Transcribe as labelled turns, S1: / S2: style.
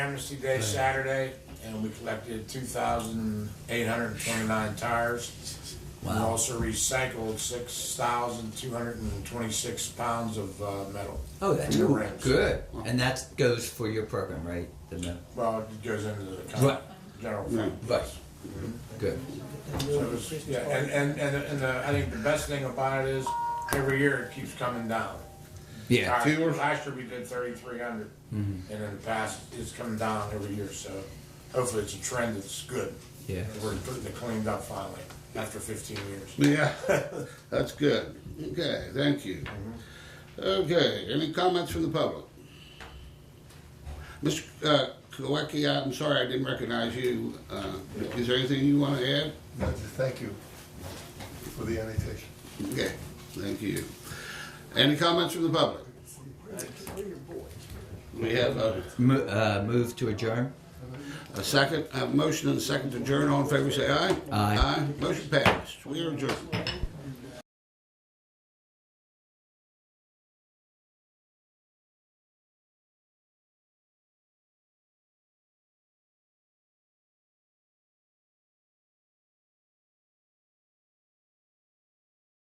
S1: Amnesty Day Saturday, and we collected two thousand eight hundred and twenty-nine tires. We
S2: Wow.
S1: also recycled six thousand two hundred and twenty-six pounds of uh, metal.
S2: Oh, that's
S1: Ooh,
S2: cool. good. And that goes for your program, right? The mil-
S1: Well, it goes into the
S2: Right.
S1: con- general fund.
S2: Right. Good.
S1: So it was- Yeah, and, and, and, and the, I think the best thing about it is, every year it keeps coming down.
S2: Yeah. Mm-hmm.
S1: Last- Last year we did thirty-three hundred, and in the past, it's coming down every year, so hopefully it's a trend that's good.
S2: Yeah.
S1: And We're putting it cleaned up finally, after fifteen years.
S3: Yeah, that's good. Okay, thank you. Okay, any comments from the public? Mr. uh, Kowalski, I'm sorry I didn't recognize you. Uh, Is there anything you want to add?
S4: No, just thank you for the annotation.
S3: Okay, thank you. Any comments from the public? We have a,
S2: Mo- uh, move to adjourn.
S3: a second, a motion and a second to adjourn. All in favor, say aye.
S2: Aye.
S3: Aye, motion passed.